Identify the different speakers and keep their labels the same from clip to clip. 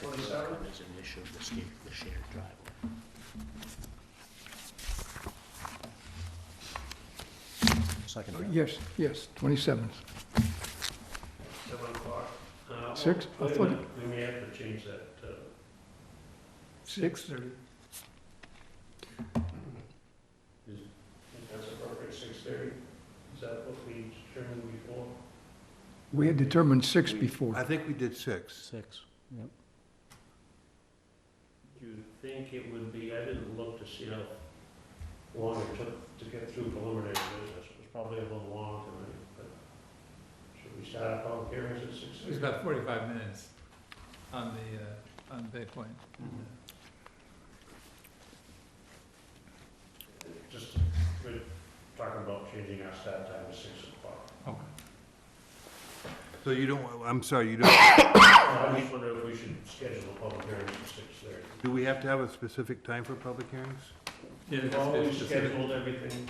Speaker 1: Twenty-seven?
Speaker 2: There's an issue of the sca- the shared driveway. Second
Speaker 3: Uh,
Speaker 2: round.
Speaker 4: Yes, yes, 27th.
Speaker 1: Seven o'clock. Uh,
Speaker 4: Six? I
Speaker 1: Wait a
Speaker 4: thought-
Speaker 1: minute, we may have to change that. uh,
Speaker 4: 6:30.
Speaker 1: if That's appropriate, six thirty. Is that what we determined before?
Speaker 4: We had determined 6 before.
Speaker 5: I think we did six.
Speaker 2: Six.
Speaker 1: Do you think it would be, I didn't look to see how long it took to get through preliminary business. It was probably a little long tonight, but should we start our public hearings at six
Speaker 3: It's
Speaker 1: thirty?
Speaker 3: about forty-five minutes on the, uh, on Bay Point.
Speaker 1: Just, we're talking about changing our start time to six o'clock.
Speaker 5: So you don't, I'm sorry, you don't,
Speaker 1: I just wonder if we should schedule a public hearing at six thirty.
Speaker 5: do we have to have a specific time for public hearings?
Speaker 3: Yeah,
Speaker 1: We've
Speaker 3: that's
Speaker 1: always
Speaker 3: specific-
Speaker 1: scheduled everything,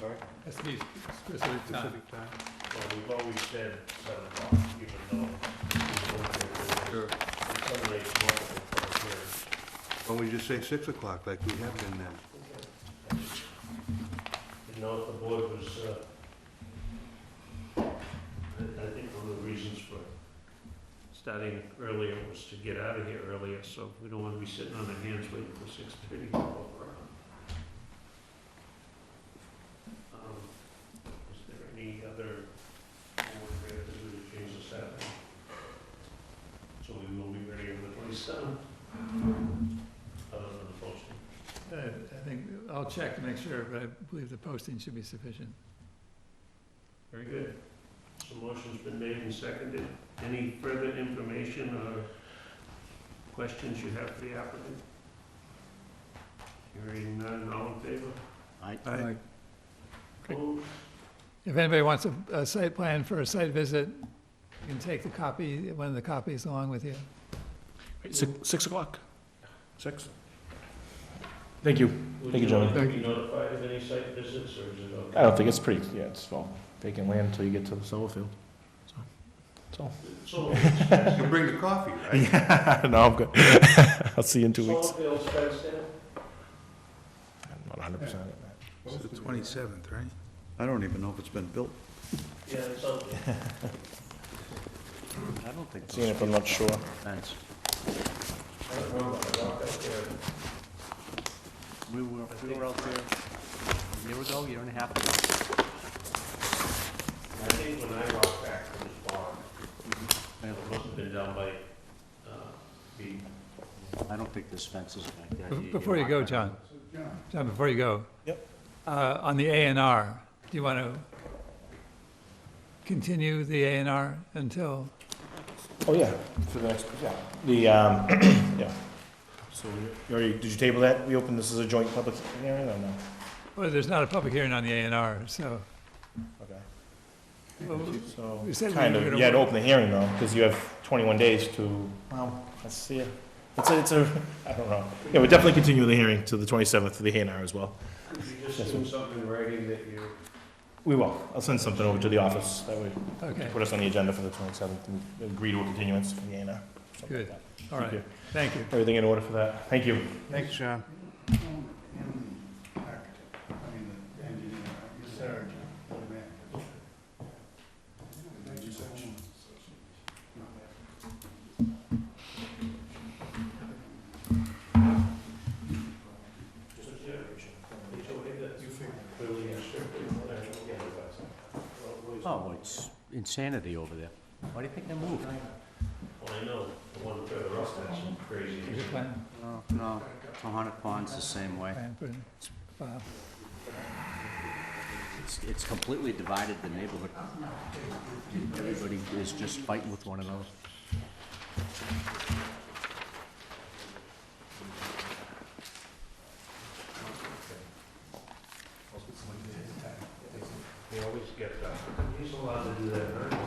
Speaker 1: sorry,
Speaker 3: That's the specific time.
Speaker 5: Specific time?
Speaker 1: well, we've always said seven o'clock, even though. it's
Speaker 5: Sure.
Speaker 1: only- it's only multiple public hearings.
Speaker 5: Why don't we just say six o'clock like we have been then?
Speaker 1: Didn't know if the board was, uh, I I think one of the reasons for starting earlier was to get out of here earlier, so we don't want to be sitting on our hands waiting for six thirty to go around. Um, Is there any other board matter that we would change this out? So we will be ready on the twenty-seventh, other than the posting.
Speaker 3: Uh, I think, I'll check to make sure, but I believe the posting should be sufficient.
Speaker 1: Very good. So motion's been made and seconded. Any further information or questions you have for the applicant? Hearing none, all in favor?
Speaker 2: I,
Speaker 4: Right.
Speaker 1: Opposed?
Speaker 3: If anybody wants a, a site plan for a site visit, you can take the copy, one of the copies along with you.
Speaker 6: Six o'clock.
Speaker 2: Six.
Speaker 6: Thank you. Thank you, gentlemen.
Speaker 1: Would you like to be notified of any site visits, or is it okay?
Speaker 6: I don't think it's pretty, yeah, it's all vacant land until you get to the summer field.
Speaker 1: Solar fields-
Speaker 5: You bring the coffee, right?
Speaker 6: No, I'm good. I'll see you in two weeks.
Speaker 1: solar fields fenced in?
Speaker 6: I'm not hundred percent.
Speaker 5: It's the twenty-seventh, right?
Speaker 7: I don't even know if it's been built.
Speaker 1: Yeah, it's up there.
Speaker 2: I don't think.
Speaker 6: Seeing if I'm not sure.
Speaker 2: Thanks.
Speaker 1: I don't remember, I walked up there.
Speaker 2: We were, we were out there a year ago, year and a half ago.
Speaker 1: I think when I walked back from the farm, it must have been down by, uh, the
Speaker 2: I don't think this fence is like that.
Speaker 3: Be- Before you go,
Speaker 2: lock that.
Speaker 3: John, John, before you go.
Speaker 6: Yep.
Speaker 3: Uh, on the A and R, do you want to continue the A and R until,
Speaker 6: Oh, yeah, for the next, yeah. The, um, yeah. So, you already, did you table that? We opened this as a joint public hearing or no?
Speaker 3: well, there's not a public hearing on the A and R, so.
Speaker 6: Okay.
Speaker 3: Well,
Speaker 6: So,
Speaker 3: You said we
Speaker 6: kind
Speaker 3: were
Speaker 6: of,
Speaker 3: gonna
Speaker 6: you had to
Speaker 3: work-
Speaker 6: open the hearing though, because you have twenty-one days to, well, let's see it. It's a, it's a, I don't know. Yeah, we definitely continue the hearing to the twenty-seventh for the A and R as well.
Speaker 1: Could you just do something in writing that you,
Speaker 6: We will. I'll send something over to the office. That way,
Speaker 3: Okay,
Speaker 6: put us on the agenda for the 27th and agree to a continuance for the A and R. something like
Speaker 3: Good.
Speaker 6: that.
Speaker 3: all
Speaker 6: Thank
Speaker 3: right,
Speaker 6: you.
Speaker 3: thank you.
Speaker 6: Everything in order for that. Thank you.
Speaker 5: Thanks, John.
Speaker 1: just a generation? It's okay that you clearly and strictly, but I don't get it, but-
Speaker 2: Oh, it's insanity over there. Why do you think they moved?
Speaker 1: Well, I know, the one further up, that's crazy.
Speaker 3: Is it plan,
Speaker 2: No, No, Tohonet Pond's the same way.
Speaker 3: plan for, file?
Speaker 2: It's, it's completely divided the neighborhood. Everybody is just fighting with one another.
Speaker 1: uh, They always get that. He's allowed to do that, right?